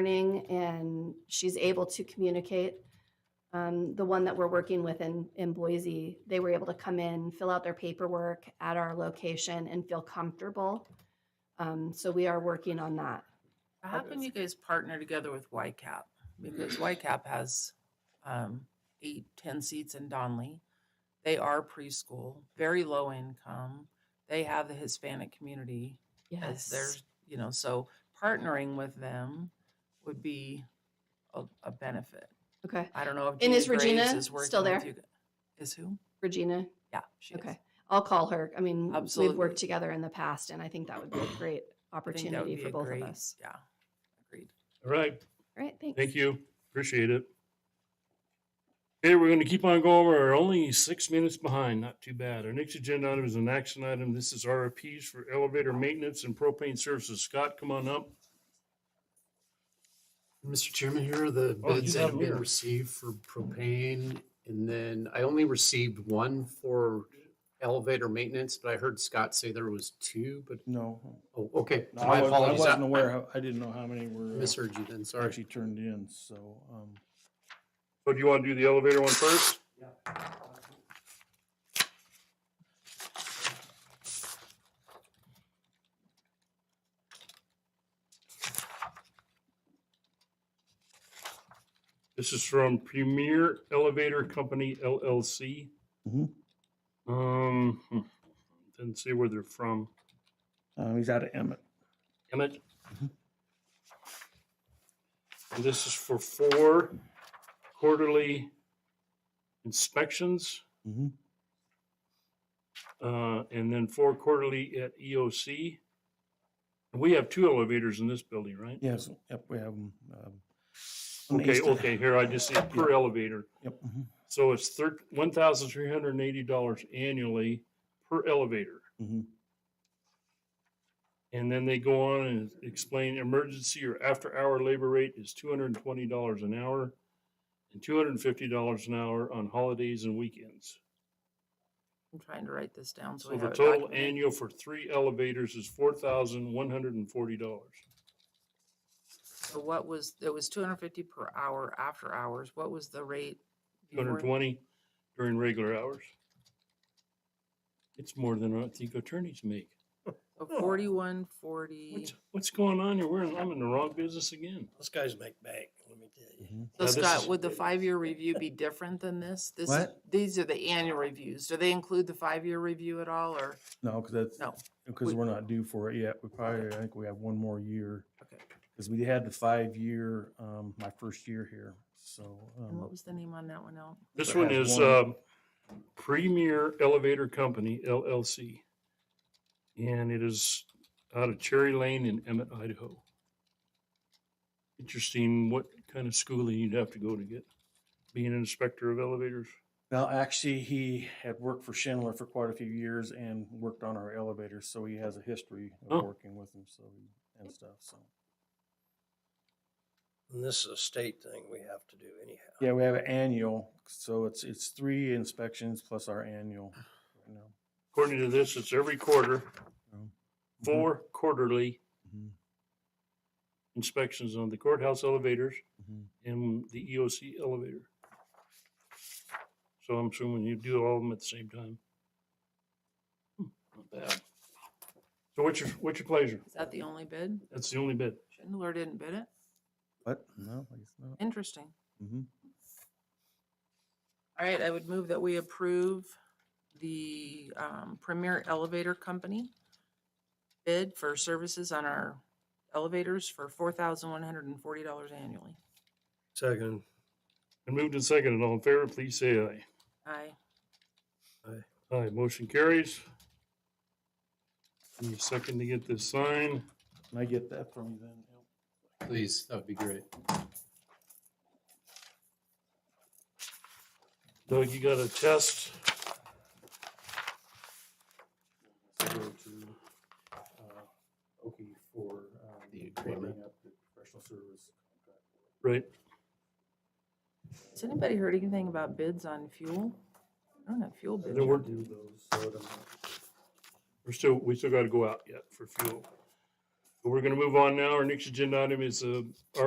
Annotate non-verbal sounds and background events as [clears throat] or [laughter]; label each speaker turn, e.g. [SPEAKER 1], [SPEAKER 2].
[SPEAKER 1] learning and she's able to communicate. Um, the one that we're working with in, in Boise, they were able to come in, fill out their paperwork at our location and feel comfortable. Um, so we are working on that.
[SPEAKER 2] How come you guys partner together with YCAP?
[SPEAKER 1] [clears throat]
[SPEAKER 2] Because YCAP has um, eight, 10 seats in Donley. They are preschool, very low income. They have the Hispanic community as their, you know, so partnering with them would be a, a benefit.
[SPEAKER 1] Okay.
[SPEAKER 2] I don't know if
[SPEAKER 1] And is
[SPEAKER 2] Jeannie Graves
[SPEAKER 1] Regina
[SPEAKER 2] is working
[SPEAKER 1] still
[SPEAKER 2] with
[SPEAKER 1] there?
[SPEAKER 2] you gu- Is who?
[SPEAKER 1] Regina,
[SPEAKER 2] Yeah, she is.
[SPEAKER 1] okay. I'll call her. I mean, we've
[SPEAKER 2] Absolutely.
[SPEAKER 1] worked together in the past and I think that would be a great
[SPEAKER 2] I think that would
[SPEAKER 1] opportunity
[SPEAKER 2] be
[SPEAKER 1] for
[SPEAKER 2] a
[SPEAKER 1] both
[SPEAKER 2] great-
[SPEAKER 1] of us.
[SPEAKER 2] Yeah, agreed.
[SPEAKER 3] All right,
[SPEAKER 1] All right. Thanks.
[SPEAKER 3] thank you. Appreciate it. Okay, we're going to keep on going. We're only six minutes behind. Not too bad. Our next agenda item is an action item. This is RFPs for elevator maintenance and propane services. Scott, come on up.
[SPEAKER 4] Mr. Chairman, here are the
[SPEAKER 3] Oh, you
[SPEAKER 4] bids
[SPEAKER 3] have
[SPEAKER 4] that have been
[SPEAKER 3] them.
[SPEAKER 4] received for propane. And then I only received one for elevator maintenance, but I heard Scott say there was two, but,
[SPEAKER 5] No,
[SPEAKER 4] oh, okay.
[SPEAKER 5] no,
[SPEAKER 4] My
[SPEAKER 5] I wasn't, I
[SPEAKER 4] apologies.
[SPEAKER 5] wasn't aware. How, I didn't know how many were uh,
[SPEAKER 4] Misheard you then, sorry.
[SPEAKER 5] actually turned in. So, um,
[SPEAKER 3] So do you want to do the elevator one first? This is from Premier Elevator Company LLC.
[SPEAKER 5] Mhm.
[SPEAKER 3] Um, hmm, didn't say where they're from.
[SPEAKER 5] uh, he's out of Emmett.
[SPEAKER 3] Emmett.
[SPEAKER 5] Mhm.
[SPEAKER 3] And this is for four quarterly inspections,
[SPEAKER 2] Mm-hmm.
[SPEAKER 5] Mhm.
[SPEAKER 3] uh, and then four quarterly at EOC. And we have two elevators in this building, right?
[SPEAKER 5] Yes. Yep. We have him. Um, on the
[SPEAKER 3] Okay,
[SPEAKER 5] east end.
[SPEAKER 3] okay, here, I just see per elevator.
[SPEAKER 5] Yep. mhm,
[SPEAKER 3] So it's thir- one thousand three hundred and eighty dollars annually per elevator.
[SPEAKER 5] mhm.
[SPEAKER 3] And then they go on and explain emergency or after hour labor rate is two hundred and twenty dollars an hour and two hundred and fifty dollars an hour on holidays and weekends.
[SPEAKER 2] I'm trying to write this down. So,
[SPEAKER 3] So
[SPEAKER 2] we
[SPEAKER 3] the
[SPEAKER 2] have it
[SPEAKER 3] total
[SPEAKER 2] documented.
[SPEAKER 3] annual for three elevators is four thousand one hundred and forty dollars.
[SPEAKER 2] So what was, it was two hundred fifty per hour after hours. What was the rate?
[SPEAKER 3] Two hundred and
[SPEAKER 2] before?
[SPEAKER 3] twenty during regular hours. It's more than I think attorneys make.
[SPEAKER 2] So Forty-one, forty.
[SPEAKER 3] What's, what's going on here? We're, in- I'm in the wrong business again.
[SPEAKER 6] Those guys make bank, let me tell you.
[SPEAKER 5] mhm.
[SPEAKER 2] So
[SPEAKER 3] Now, this
[SPEAKER 2] Scott,
[SPEAKER 3] is-
[SPEAKER 2] would the five-year review be different than this? This, is-
[SPEAKER 5] What?
[SPEAKER 2] these are the annual reviews. Do they include the five-year review at all or?
[SPEAKER 5] No, because that's
[SPEAKER 2] No.
[SPEAKER 5] because
[SPEAKER 2] we-
[SPEAKER 5] we, are not due for it yet. We probably I think we have one more year
[SPEAKER 2] Okay.
[SPEAKER 5] because we had the five year um, my first year here. So
[SPEAKER 2] And what
[SPEAKER 5] um,
[SPEAKER 2] was the name on that one out?
[SPEAKER 3] This
[SPEAKER 5] that
[SPEAKER 3] one
[SPEAKER 5] has
[SPEAKER 3] is
[SPEAKER 5] one-
[SPEAKER 3] um, Premier Elevator Company LLC. And it is out of Cherry Lane in Emmett, Idaho. Interesting what kind of schooling you'd have to go to get, being an inspector of elevators.
[SPEAKER 5] well, actually, he had worked for Schindler for quite a few years and worked on our elevators, so he has a history of
[SPEAKER 3] Oh.
[SPEAKER 5] working with them. So and stuff. So.
[SPEAKER 6] And this is a state thing we have to do anyhow.
[SPEAKER 5] Yeah, we have an annual, so it's, it's three inspections plus our annual right now.
[SPEAKER 3] According to this, it's every quarter,
[SPEAKER 5] so. Mhm,
[SPEAKER 3] four quarterly
[SPEAKER 5] mhm,
[SPEAKER 3] inspections on the courthouse elevators
[SPEAKER 5] mhm.
[SPEAKER 3] and the EOC elevator. So I'm assuming you do all of them at the same time. Hmm, Not bad. So what's your, what's your pleasure?
[SPEAKER 2] Is that the only bid?
[SPEAKER 3] That's the only bid.
[SPEAKER 2] Schindler didn't bid it?
[SPEAKER 5] But, no, I guess not.
[SPEAKER 2] Interesting.
[SPEAKER 5] Mhm.
[SPEAKER 2] All right, I would move that we approve the um, Premier Elevator Company bid for services on our elevators for four thousand one hundred and forty dollars annually.
[SPEAKER 6] Second,
[SPEAKER 3] And moved and seconded. All in favor, please say aye.
[SPEAKER 2] Aye.
[SPEAKER 3] Aye, motion carries. Give me a second to get this signed.
[SPEAKER 5] Can I get that from you then? Al?
[SPEAKER 4] Please, that would be great.
[SPEAKER 3] Doug, you got a test?
[SPEAKER 5] So go to, uh, Oki for, um,
[SPEAKER 4] The agreement.
[SPEAKER 5] wrapping up the Professional service contract.
[SPEAKER 3] Right.
[SPEAKER 2] Has anybody heard anything about bids on fuel? I don't have fuel bids.
[SPEAKER 3] There
[SPEAKER 2] yet.
[SPEAKER 3] were-
[SPEAKER 5] Do those, so it amount-
[SPEAKER 3] We're still, we still gotta go out yet for fuel. But We're gonna move on now. Our next agenda item is, uh, our